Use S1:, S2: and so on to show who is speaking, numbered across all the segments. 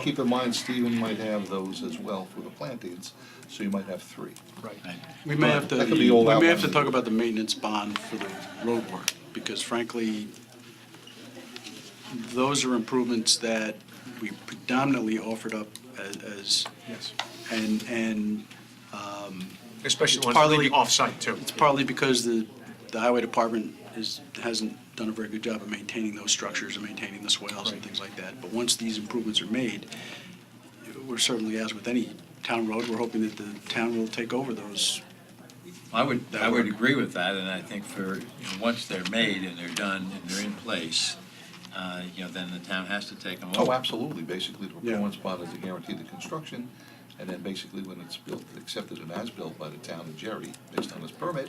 S1: keep in mind, Stephen might have those as well for the plantings, so you might have three.
S2: Right.
S3: Right.
S2: We may have to,
S1: That could
S2: we
S1: be all
S2: may have
S1: outlined.
S2: to talk about the maintenance bond for the road work, because frankly, those are improvements that we predominantly offered up as- as,
S4: Yes.
S2: and, and
S4: Especially
S2: It's
S4: ones that
S2: partly-
S4: leave off-site, too.
S2: It's partly because the, the highway department is, hasn't done a very good job of maintaining those structures and maintaining the swales and
S4: Right.
S2: things like that. But once these improvements are made, we're certainly, as with any town road, we're hoping that the town will take over those.
S3: I would,
S2: That
S3: I would
S2: work.
S3: agree with that, and I think for, you know, once they're made and they're done and they're in place, uh, you know, then the town has to take them over.
S1: Oh, absolutely, basically, the
S2: Yeah.
S1: performance bond is a guarantee to construction, and then basically when it's built, accepted and as-built by the town of Jerry, based on this permit,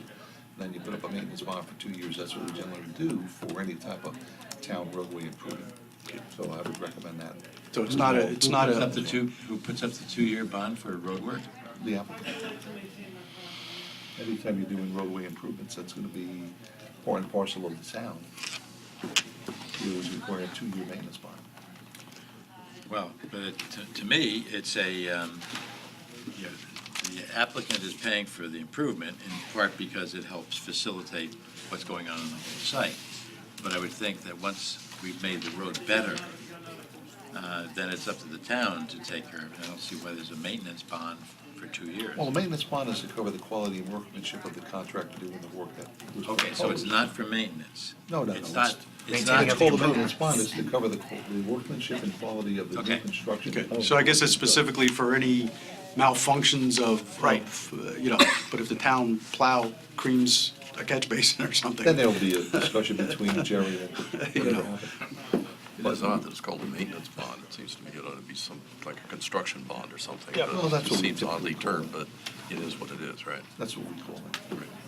S1: then you put up a maintenance bond for two years, that's what we generally do for any type of town roadway improvement. So I would recommend that,
S2: So
S1: Mm-hmm.
S2: it's not a, it's not
S3: Who puts up
S2: a,
S3: the two, who puts up the two-year bond for road work?
S1: the applicant. Anytime you're doing roadway improvements, that's gonna be part and parcel of the town. You always require a two-year maintenance bond.
S3: Well, but it- to- to me, it's a, um, you know, the applicant is paying for the improvement in part because it helps facilitate what's going on on the whole site. But I would think that once we've made the road better, uh, then it's up to the town to take care of it. I don't see why there's a maintenance bond for two years.
S1: Well, the maintenance bond is to cover the quality and workmanship of the contractor doing the work that was proposed.
S3: Okay, so it's not for maintenance?
S1: No, no, no,
S3: It's
S1: it's-
S3: not, it's
S4: Maintaining
S3: not,
S1: It's
S4: of
S1: called a maintenance bond, it's to cover the qu- the workmanship and quality of the new
S3: Okay.
S1: construction.
S2: okay, so I guess it's specifically for any malfunctions of,
S1: Right.
S2: of, uh, you know, but if the town plow creams a catch basin or something.
S1: Then there'll be a discussion between Jerry and whatever happened.
S5: It is odd that it's called a maintenance bond. It seems to me it ought to be some, like a construction bond or something.
S4: Yeah,
S5: but
S1: well, that's
S5: It
S1: what we
S5: seems oddly termed, but it is what it is, right?
S1: That's what we call it.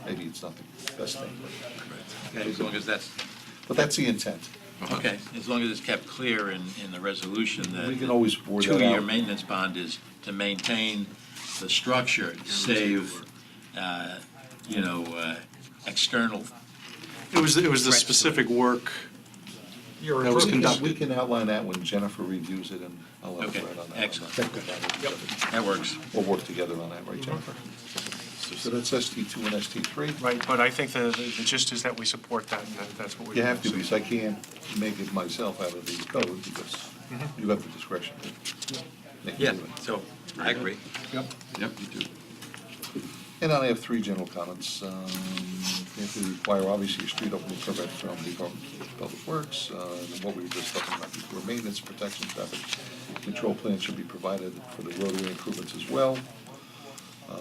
S1: Maybe it's not the best thing, but-
S3: as long as that's,
S1: but that's the intent.
S3: okay, as long as it's kept clear in, in the resolution that.
S1: We can always word that
S3: Two-year
S1: out.
S3: maintenance bond is to maintain the structure, save, uh, you know, uh, external,
S2: It was, it was the
S3: Correct.
S2: specific work,
S4: Your
S2: That was
S1: We
S4: improvements.
S1: can-
S2: conducted.
S1: we can outline that when Jennifer reviews it, and I'll let
S3: Okay,
S1: her write on that.
S3: excellent.
S4: Yep.
S3: that works.
S1: We'll work together on that, right, Jennifer? So that's ST two and ST three.
S4: Right, but I think the the gist is that we support that, and that- that's what we.
S1: You have to, because I can't make it myself out of these codes, because you have the discretion. to make me
S3: Yeah,
S1: do it.
S3: so, I agree.
S5: Yep, you do.
S1: And I have three general comments. Um, If we require, obviously, a street opening permit from the Department of Public Works, uh, and what we were just talking about before, maintenance, protection, traffic control plans should be provided for the roadway improvements as well. Uh,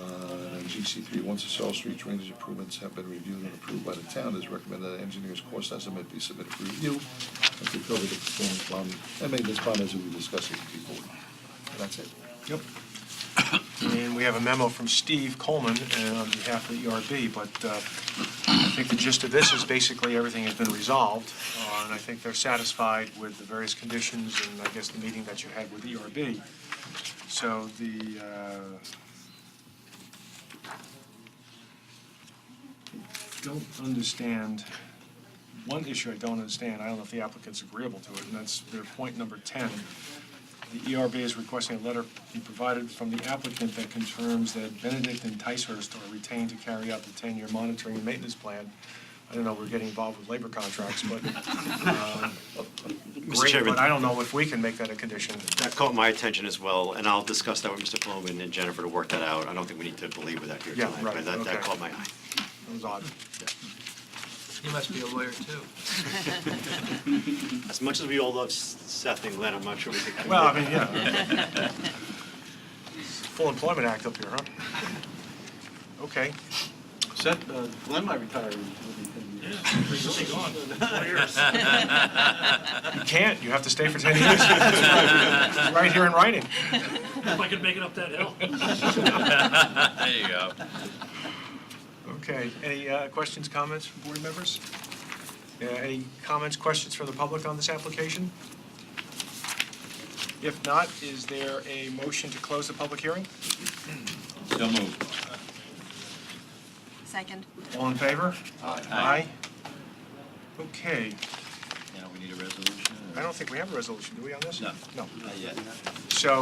S1: and GC three, once the Searle Street drainage improvements have been reviewed and approved by the town, it is recommended that engineer's cost estimate be submitted for review and to cover the performance bond, and maintenance bond as we were discussing before. That's it.
S4: Yep. And we have a memo from Steve Coleman uh, on behalf of the ERB, but uh, I think the gist of this is basically everything has been resolved, uh, and I think they're satisfied with the various conditions and I guess the meeting that you had with E ERB. So the, uh, don't understand, one issue I don't understand, I don't know if the applicant's agreeable to it, and that's their point number 10. The ERB is requesting a letter be provided from the applicant that confirms that Benedict and Ticehurst are retained to carry out the 10-year monitoring and maintenance plan. I don't know, we're getting involved with labor contracts, but, um,
S6: Mr.
S4: great,
S6: Chairman,
S4: but I don't know if we can make that a condition.
S6: that caught my attention as well, and I'll discuss that with Mr. Flowman and Jennifer to work that out. I don't think we need to belabor that here
S4: Yeah,
S6: tonight,
S4: right,
S6: but that,
S4: okay.
S6: that caught my eye.
S4: That was odd.
S3: You must be a lawyer, too.
S6: As much as we all love S- Seth and Glenn, I'm not sure we could.
S4: Well, I mean, yeah. Full Employment Act up here, huh? Okay.
S2: Seth, uh, Glenn might retire within 10 years.
S4: You can't, you have to stay for 10 years. Right here in writing.
S7: If I could make it up that hill.
S3: There you go.
S4: Okay, any uh, questions, comments from board members? Uh, Any comments, questions from the public on this application? If not, is there a motion to close the public hearing?
S3: So moved.
S8: Second.
S4: All in favor? Aye. Okay,
S3: You know, we need a resolution? or-
S4: I don't think we have a resolution, do we, on this?
S3: No.
S4: No.
S3: Not yet.
S4: So